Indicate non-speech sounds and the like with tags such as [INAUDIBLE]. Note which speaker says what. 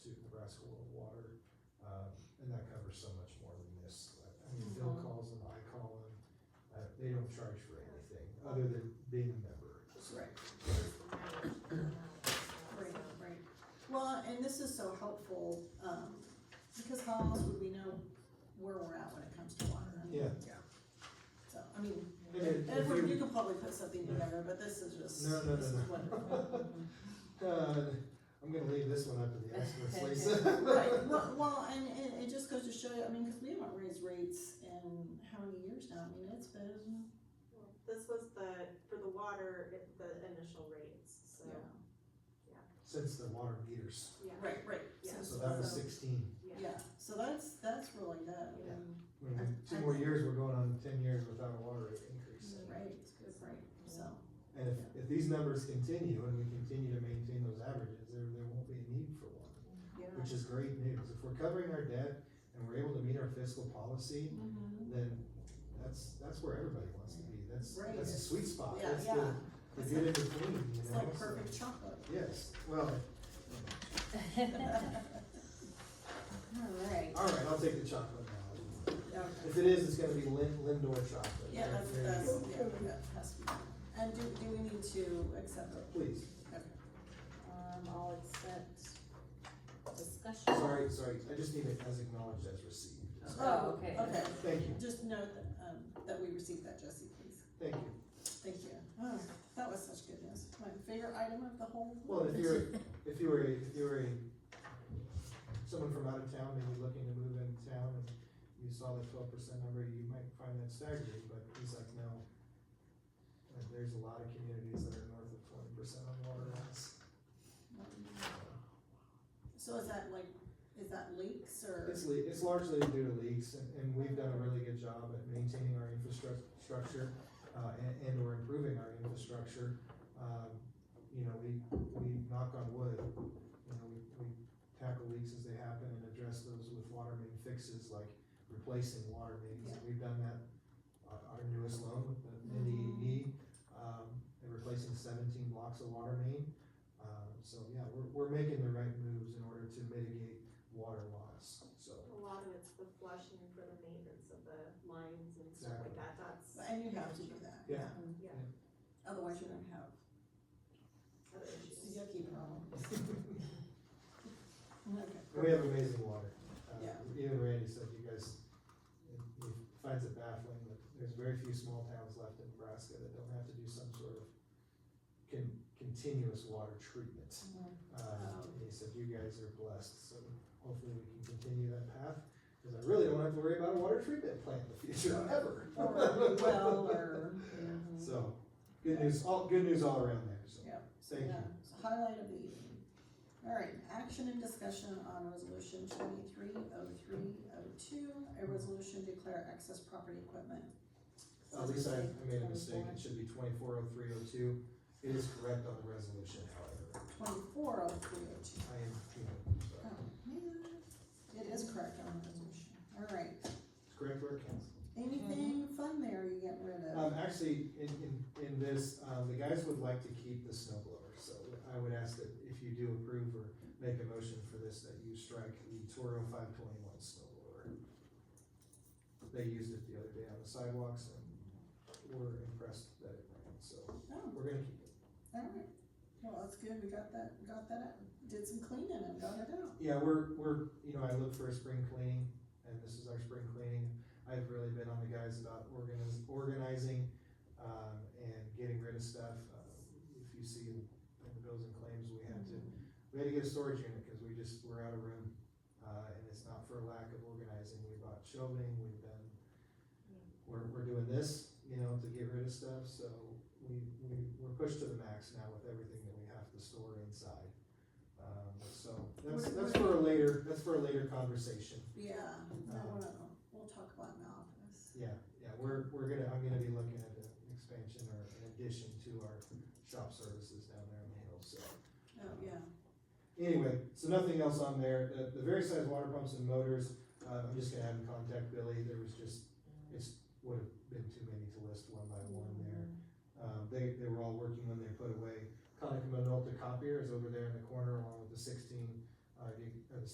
Speaker 1: um, uh,
Speaker 2: Uh-huh.
Speaker 1: other than being a member.
Speaker 2: Right,
Speaker 3: Right,
Speaker 2: right,
Speaker 3: right.
Speaker 2: right. Well, and this is so helpful, um, because how else would we know where we're at when it comes to water? I mean,
Speaker 1: Yeah.
Speaker 2: So, I mean,
Speaker 1: And if-
Speaker 2: and
Speaker 1: if
Speaker 2: we-
Speaker 1: you-
Speaker 2: you could probably put something together, but this is just,
Speaker 1: No, no, no,
Speaker 2: this is
Speaker 1: no.
Speaker 2: wonderful.
Speaker 1: Uh, I'm gonna leave this one up to the
Speaker 2: [LAUGHS]
Speaker 1: experts,
Speaker 2: Right,
Speaker 1: Lisa.
Speaker 2: well, well, and, and it just goes to show you, I mean, cause we haven't raised rates in how many years now, I mean, it's been,
Speaker 3: This was the, for the water, it- the initial rates, so,
Speaker 2: yeah.
Speaker 1: Since the water meters,
Speaker 3: yeah.
Speaker 2: Right, right,
Speaker 3: Yeah.
Speaker 2: since-
Speaker 1: so that was
Speaker 2: so-
Speaker 1: sixteen.
Speaker 3: Yeah,
Speaker 2: Yeah, so that's, that's really good, I
Speaker 3: Yeah.
Speaker 2: mean,
Speaker 1: When we- Two more years, we're going on ten years without a water rate increase.
Speaker 2: right, right, so.
Speaker 1: And if, if these numbers continue and we continue to maintain those averages, there, there won't be a need for one,
Speaker 2: Yeah.
Speaker 1: which is great news. If we're covering our debt and we're able to meet our fiscal policy, then that's, that's where everybody wants to be. That's,
Speaker 2: Right.
Speaker 1: that's a sweet spot.
Speaker 2: Yeah,
Speaker 1: That's
Speaker 2: yeah.
Speaker 1: the, the good in between, you
Speaker 2: It's
Speaker 1: know?
Speaker 2: like
Speaker 1: So-
Speaker 2: perfect chocolate.
Speaker 1: Yes, well,
Speaker 2: Alright,
Speaker 1: all right, I'll take the chocolate now.
Speaker 2: okay.
Speaker 1: If it is, it's gonna be Lind, Lindor chocolate.
Speaker 2: Yeah, that's,
Speaker 1: There you
Speaker 2: that's,
Speaker 1: go.
Speaker 2: yeah, that has to be. And do, do we need to accept it?
Speaker 1: Please,
Speaker 2: Okay.
Speaker 4: Um, I'll accept discussion.
Speaker 1: sorry, sorry, I just need it as acknowledged as received.
Speaker 4: Oh, okay.
Speaker 2: Okay,
Speaker 1: Thank you,
Speaker 2: just note that, um, that we received that, Jesse, please.
Speaker 1: thank you.
Speaker 2: Thank you. Oh, that was such good news. My favorite item of the whole.
Speaker 1: Well, if you're, if you were, if you were a- someone from out of town, maybe looking to move into town, and you saw the twelve percent number, you might find that staggering, but he's like, no. Like, there's a lot of communities that are north of twenty percent on water loss.
Speaker 2: So is that like, is that leaks or?
Speaker 1: It's le- it's largely due to leaks, and, and we've done a really good job at maintaining our infrastructure, uh, and, and or improving our infrastructure. Um, you know, we, we knock on wood, you know, we, we tackle leaks as they happen and address those with water main fixes, like replacing water mains. We've done that, uh, our, our newest loan with the NDED, um, and replacing seventeen blocks of water main. Um, so, yeah, we're, we're making the right moves in order to mitigate water loss, so. [LAUGHS]
Speaker 3: a lot of it's the flushing for the maintenance of the lines and stuff like that, that's
Speaker 2: And you have to do that.
Speaker 1: Yeah.
Speaker 3: Yeah.
Speaker 2: Otherwise you're gonna have
Speaker 3: other issues.
Speaker 2: yucky problems. Okay.
Speaker 1: And we have amazing water. Uh,
Speaker 2: Yeah.
Speaker 1: Even Randy said, you guys, he finds it baffling that there's very few small towns left in Nebraska that don't have to do some sort of con- continuous water treatment.
Speaker 2: Mm-hmm.
Speaker 1: Uh, and he said, you guys are blessed, so hopefully we can continue that path, cause I really don't have to worry about a water treatment plant in the future, ever. [LAUGHS]
Speaker 2: Or well, or,
Speaker 4: Mhm.
Speaker 1: So, good news, all, good news all around there, so.
Speaker 2: yeah.
Speaker 1: Thank you.
Speaker 2: Yeah, so highlight of the evening. All right, action and discussion on resolution twenty-three oh three oh two, a resolution declare excess property equipment.
Speaker 1: Uh, Lisa, I- I made a mistake, it should be twenty-four oh three oh two, it is correct on the resolution, however,
Speaker 2: Twenty-four oh three oh two.
Speaker 1: I am, you know,
Speaker 2: Oh,
Speaker 1: sorry.
Speaker 2: man. It is correct on the resolution. All right,
Speaker 1: It's correct where it counts.
Speaker 2: anything fun there you get rid of?
Speaker 1: Um, actually, in, in, in this, um, the guys would like to keep the snow blower, so I would ask that if you do approve or make a motion for this, that you strike the Toro five twenty-one snow blower. They used it the other day on the sidewalks and were impressed that it ran, so
Speaker 2: Oh,
Speaker 1: we're gonna keep it.
Speaker 2: all right. Well, that's good, we got that, got that out, did some cleaning and got it out.
Speaker 1: Yeah, we're, we're, you know, I look for a spring cleaning, and this is our spring cleaning. I've really been on the guys about organiz, organizing, um, and getting rid of stuff. Uh, If you see in in the bills and claims, we had to, we had to get a storage unit, cause we just, we're out of room. Uh, and it's not for lack of organizing, we bought shelving, we've done, we're, we're doing this, you know, to get rid of stuff, so we, we, we're pushed to the max now with everything that we have to store inside. Um, so, that's,
Speaker 2: What-
Speaker 1: that's for a
Speaker 2: what-
Speaker 1: later, that's for a later conversation.
Speaker 2: Yeah, that one, I'll- we'll talk about in the office.
Speaker 1: Yeah, yeah, we're, we're gonna, I'm gonna be looking at an expansion or an addition to our shop services down there on the hill, so.
Speaker 2: Oh, yeah.
Speaker 1: Anyway, so nothing else on there, the, the various size water pumps and motors, uh, I'm just gonna have him contact Billy, there was just, it's, would have been too many to list one by one there. Um, they, they were all working when they put away, Conica Minolta copier is over there in the corner along with the sixteen, uh, the- uh, the